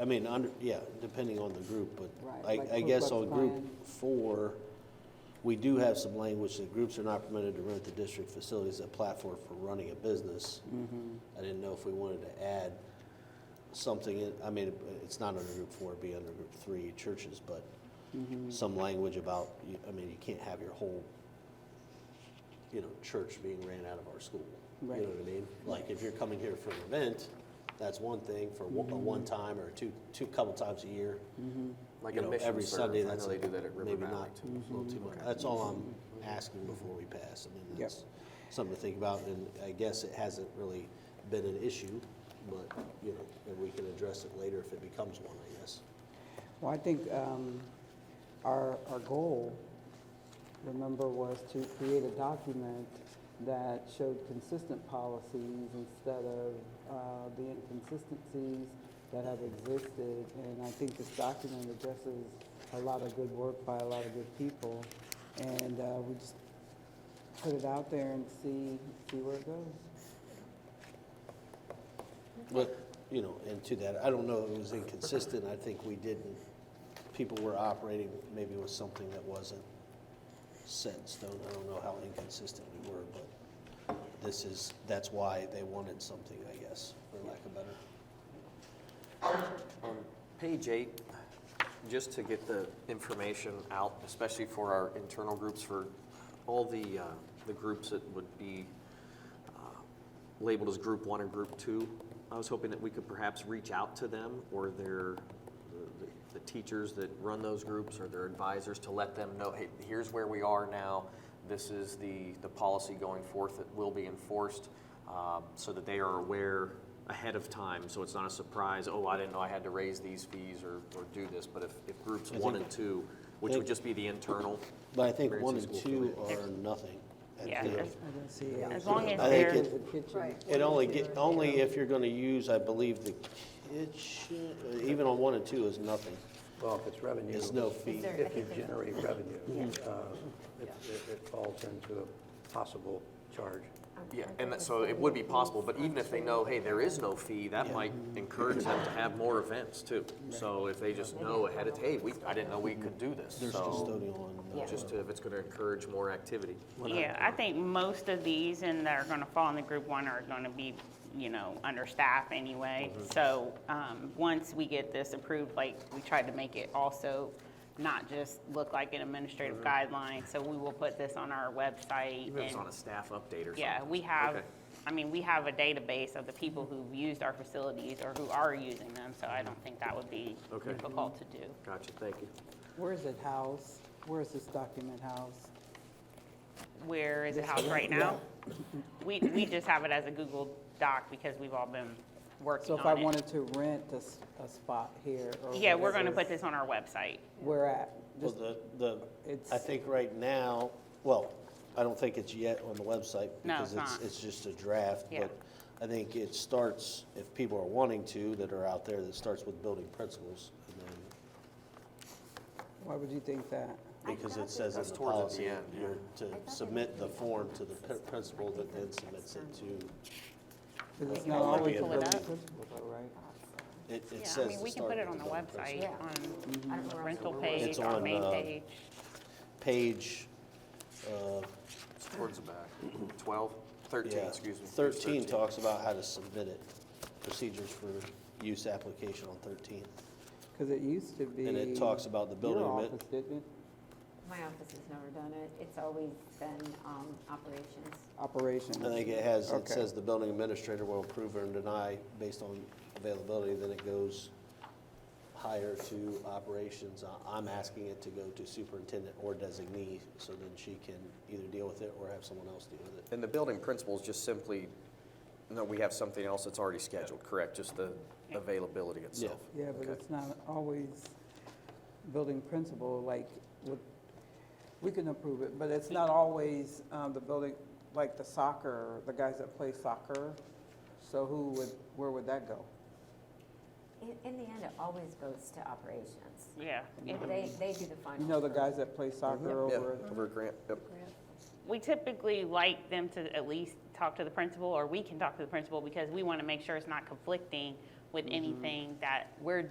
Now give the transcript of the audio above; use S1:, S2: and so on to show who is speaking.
S1: I mean, under, yeah, depending on the group,
S2: Right,
S1: but I,
S2: like
S1: I guess
S2: Ku
S1: on
S2: Klux
S1: group
S2: Klan.
S1: four, we do have some language that groups are not permitted to rent the district facilities as a platform for running a business.
S2: Mm-hmm.
S1: I didn't know if we wanted to add something, in- I mean, it's not under group four, it'd be under group three, churches, but some language about, you- I mean, you can't have your whole, you know, church being ran out of our school. You know
S2: Right.
S1: what I mean? Like, if you're coming here for an event, that's one thing, for one- a one time or two, two, couple times a year.
S3: Mm-hmm. Like
S1: You
S3: a
S1: know,
S3: mission
S1: every
S3: serve.
S1: Sunday,
S3: I know
S1: that's
S3: they do that at Mm-hmm. River
S1: maybe
S3: Valley
S1: not,
S3: too.
S1: a little too much. That's all I'm asking before we pass. I mean,
S2: Yep.
S1: that's something to think about, and I guess it hasn't really been an issue, but, you know, and we can address it later if it becomes one, I guess.
S2: Well, I think um, our, our goal, remember, was to create a document that showed consistent policies instead of uh, the inconsistencies that have existed. And I think this document addresses a lot of good work by a lot of good people. And uh, we just put it out there and see, see where it goes.
S1: But, you know, and to that, I don't know if it was inconsistent, I think we didn't, people were operating maybe with something that wasn't set in stone, I don't know how inconsistent we were, but this is, that's why they wanted something, I guess, for lack of better.
S3: Page eight, just to get the information out, especially for our internal groups, for all the, uh, the groups that would be uh, labeled as group one or group two. I was hoping that we could perhaps reach out to them or their, the- the teachers that run those groups or their advisors to let them know, hey, here's where we are now. This is the, the policy going forth that will be enforced, um, so that they are aware ahead of time. So it's not a surprise, oh, I didn't know I had to raise these fees or, or do this. But if, if groups one and two, which would just be the internal,
S1: But I think
S3: Variance
S1: one
S3: in
S1: and
S3: school
S1: two are nothing. I
S4: Yeah,
S1: think.
S4: as,
S2: I don't see it.
S4: as long as
S1: I think
S4: they're,
S1: it-
S2: The kitchen.
S1: It only get, only if you're gonna use, I believe, the kitchen, even on one and two is nothing,
S5: Well, if it's revenue.
S1: is no fee.
S4: there-
S5: If you generate revenue, uh, it it- it falls into a possible charge.
S3: yeah, and that, so it would be possible. But even if they know, hey, there is no fee, that might encourage them to have more events too. So if they just know ahead of, hey, we, I didn't know we could do this.
S1: There's
S3: So
S1: custodial on, uh,
S3: just to- if it's going to encourage more activity.
S4: yeah, I think most of these and that are going to fall in the group one are going to be, you know, understaffed anyway.
S3: Mm-hmm.
S4: So, um, once we get this approved, like, we tried to make it also not just look like an administrative
S3: Mm-hmm.
S4: guideline. So we will put this on our website.
S3: Even if it's
S4: and-
S3: on a staff update or something.
S4: Yeah, we have,
S3: Okay.
S4: I mean, we have a database of the people who've used our facilities or who are using them. So I don't think that would be
S3: Mm-hmm. Okay.
S4: difficult to do.
S3: Gotcha, thank you.
S2: Where is it housed? Where is this document housed?
S4: where is it housed right now? We, we just have it as a Google Doc because we've all been working
S2: So
S4: on it.
S2: if I wanted to rent a, s- a spot here or.
S4: Yeah, we're gonna
S2: whatever,
S4: put this on our website.
S2: Where at?
S1: Well,
S2: Just,
S1: the, the, I
S2: It's-
S1: think right now, well, I don't think it's yet on the website
S4: No, it's
S1: because it's,
S4: not.
S1: it's just a draft.
S4: Yeah.
S1: But I think it starts, if people are wanting to, that are out there, that starts with building principles. and then
S2: why would you think that?
S1: Because it says in
S3: That's
S1: the
S3: towards the
S1: policy,
S3: end, yeah.
S1: you're to submit the form to the pr- principal that then submits it to,
S2: Because it's
S4: You
S2: not
S4: want
S1: me
S2: always
S1: to pull
S2: really
S1: it
S4: up?
S2: principal, though, right?
S1: it, it
S4: Yeah, I
S1: says.
S4: mean, we
S1: to
S4: can
S1: start
S4: put
S1: with
S4: it on the
S1: building
S4: website,
S1: principles.
S4: on the Mm-hmm. rental
S1: It's
S4: page, our
S1: on,
S4: main
S1: uh,
S4: page.
S1: Page, uh,
S3: It's towards the back. 12, 13,
S1: yeah,
S3: excuse me. It's
S1: thirteen talks about how to submit it, procedures for use application on thirteen.
S2: Because it used to be.
S1: And it talks about the building
S2: Your
S1: admit-
S2: office, didn't it?
S6: My office has never done it. It's always been um, operations.
S2: Operations.
S1: I think it has, it
S2: Okay.
S1: says the building administrator will approve or deny based on availability, then it goes higher to operations. I- I'm asking it to go to superintendent or designee, so then she can either deal with it or have someone else deal with it.
S3: And the building principles just simply, no, we have something else that's already scheduled, correct? Just the availability itself.
S2: Yeah, but
S3: Okay.
S2: it's not always building principle, like, with- we can approve it, but it's not always um, the building, like the soccer, the guys that play soccer. So who would, where would that go?
S6: In- In the end, it always goes to operations.
S4: Yeah, Mm-hmm. it-
S6: They, they do the final.
S2: You know the
S6: approval.
S2: guys that play
S1: Mm-hmm.
S2: soccer
S3: Yeah,
S2: over
S3: over a grant, yep.
S4: we typically like them to at least talk to the
S1: Mm-hmm.
S4: principal, or we can talk to the principal because we wanna make sure it's not conflicting with anything that we're